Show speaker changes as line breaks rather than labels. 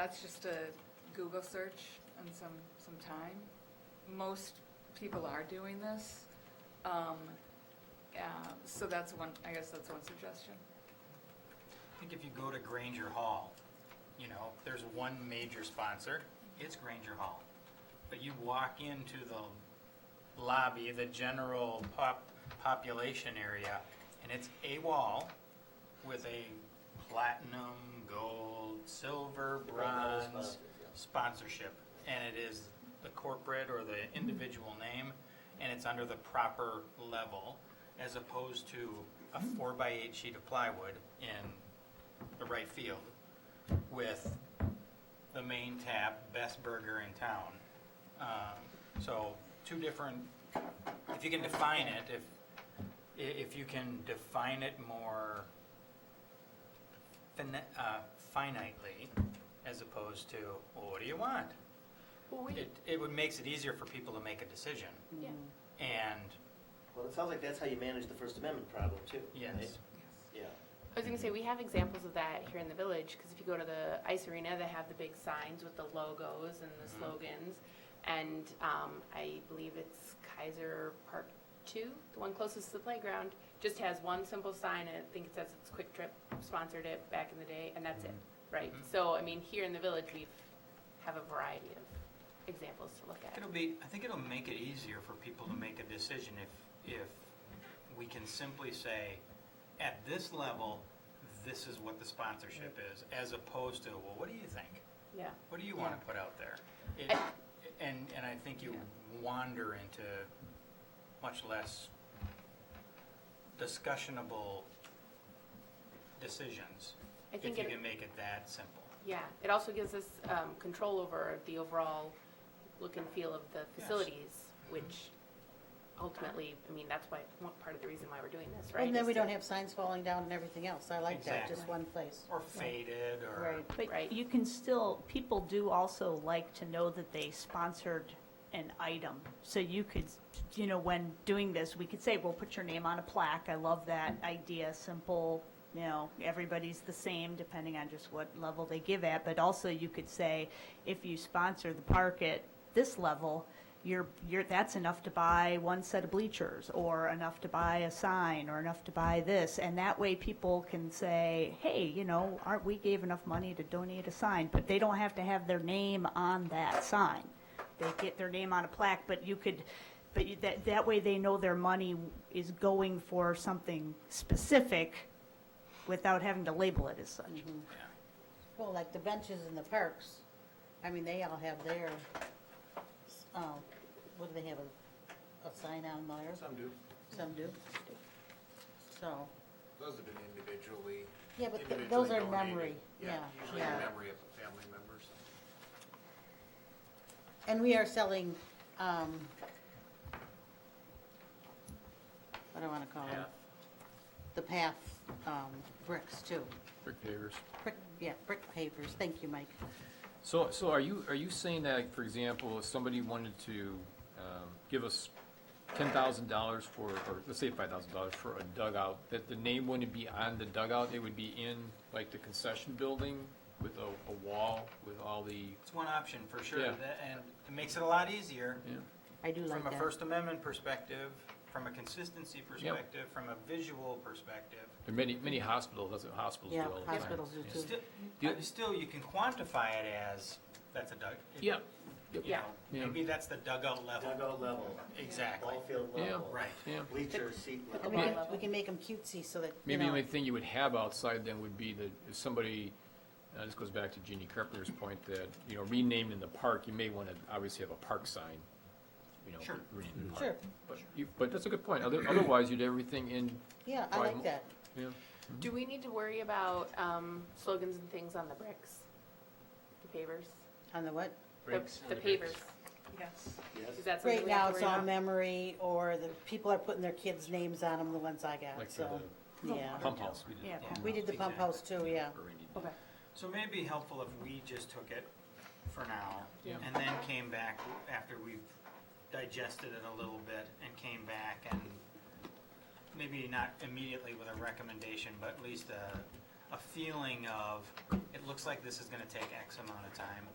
That's just a Google search and some, some time. Most people are doing this. Um, yeah, So that's one, I guess that's one suggestion.
I think if you go to Granger Hall, you know, there's one major sponsor, it's Granger Hall. But you walk into the lobby, the general pop, population area, and it's a wall with a platinum, gold, silver, bronze sponsorship. And it is the corporate or the individual name, and it's under the proper level, as opposed to a four by eight sheet of plywood in the right field with the main tap, best burger in town. Um, So two different, if you can define it, if, i- if you can define it more fini- uh, finitely as opposed to, well, what do you want?
Well, we,
It, it would, makes it easier for people to make a decision.
yeah,
And,
Well, it sounds like that's how you manage the First Amendment problem, too.
Yes.
right?
Yes.
Yeah.
I was gonna say, we have examples of that here in the village, because if you go to the ice arena, they have the big signs with the logos and the
Mhm.
slogans. And, um, I believe it's Kaiser Park Two, the one closest to the playground, just has one simple sign, and I think it says it's Quick Trip sponsored it back in the day, and that's it, right?
Mhm.
So, I mean, here in the village, we have a variety of examples to look at.
It'll be, I think it'll make it easier for people to make a decision if, if we can simply say, at this level, this is what the sponsorship is, as opposed to, well, what do you think?
Yeah,
What do you want to put out there? It-
I-
And, and I think you wander into much less discussionable decisions
I
if
think
you
it-
can make it that simple.
Yeah, it also gives us um, control over the overall look and feel of the facilities, which ultimately, I mean, that's why, one part of the reason why we're doing this, right?
And then
is
we
to-
don't have signs falling down and everything else. I like that, just
Exactly.
one place.
Or faded, or.
Right.
Right.
But you can still, people do also like to know that they sponsored an item. So you could, you know, when doing this, we could say, well, put your name on a plaque. I love that idea, simple, you know, everybody's the same depending on just what level they give at. But also you could say, if you sponsor the park at this level, you're, you're, that's enough to buy one set of bleachers, or enough to buy a sign, or enough to buy this, and that way people can say, hey, you know, aren't, we gave enough money to donate a sign, but they don't have to have their name on that sign. They get their name on a plaque, but you could, but you- that, that way they know their money is going for something specific without having to label it as such.
Yeah.
Well, like the benches in the parks, I mean, they all have their, um, what do they have, a, a sign on there?
Some do.
Some do. So,
Those have been individually.
yeah, but th-
individually
those are
donated.
memory, yeah,
Usually in
yeah.
memory of a family member, so.
And we are selling, um, what do I wanna call them? The path, um, bricks too.
Brick pavers.
Brick, yeah, brick pavers. Thank you, Mike.
So, so are you, are you saying that, like, for example, if somebody wanted to um, give us ten thousand dollars for, or let's say five thousand dollars for a dugout, that the name wouldn't be on the dugout, it would be in, like, the concession building with a, a wall with all the,
It's one option for sure,
Yeah.
That- and it makes it a lot easier
yeah,
I do like
from
that.
a First Amendment perspective, from a consistency perspective, from a visual perspective.
there are many, many hospitals, that's what hospitals do
Yeah,
all the time.
hospitals do too.
Still,
Yeah.
uh, still, you can quantify it as, that's a dug. it-
Yeah,
you
Yeah.
know,
Yeah.
Maybe that's the dugout level,
Dugout level,
exactly,
ball field
Yeah.
level.
right.
yeah.
Bleacher seat
But
level.
We can,
Yeah.
we can make them cutesy so that, you
Maybe the only
know,
thing you would have outside then would be that if somebody, uh, this goes back to Jeannie Carpenter's point that, you know, renamed in the park, you may want to obviously have a park sign, you know.
Sure.
renamed in the
sure,
park. But you, but that's a good point. Other, otherwise, you'd have everything in,
yeah, I
Right.
like that.
you know,
Do we need to worry about um, slogans and things on the bricks? The pavers?
On the what?
The- The pavers,
Yes.
Yes.
is that something
Right
we have
now,
to
it's
worry
all
about?
memory, or the people are putting their kids' names on them, the ones I got,
like for
so,
the
uh, yeah.
pump house. we did the
Yeah,
pump
We did the pump house too, yeah.
for Randy.
Okay,
So may it be helpful if we just took it for now,
Yeah.
and then came back after we've digested it a little bit, and came back and maybe not immediately with a recommendation, but at least a, a feeling of, it looks like this is gonna take X amount of time.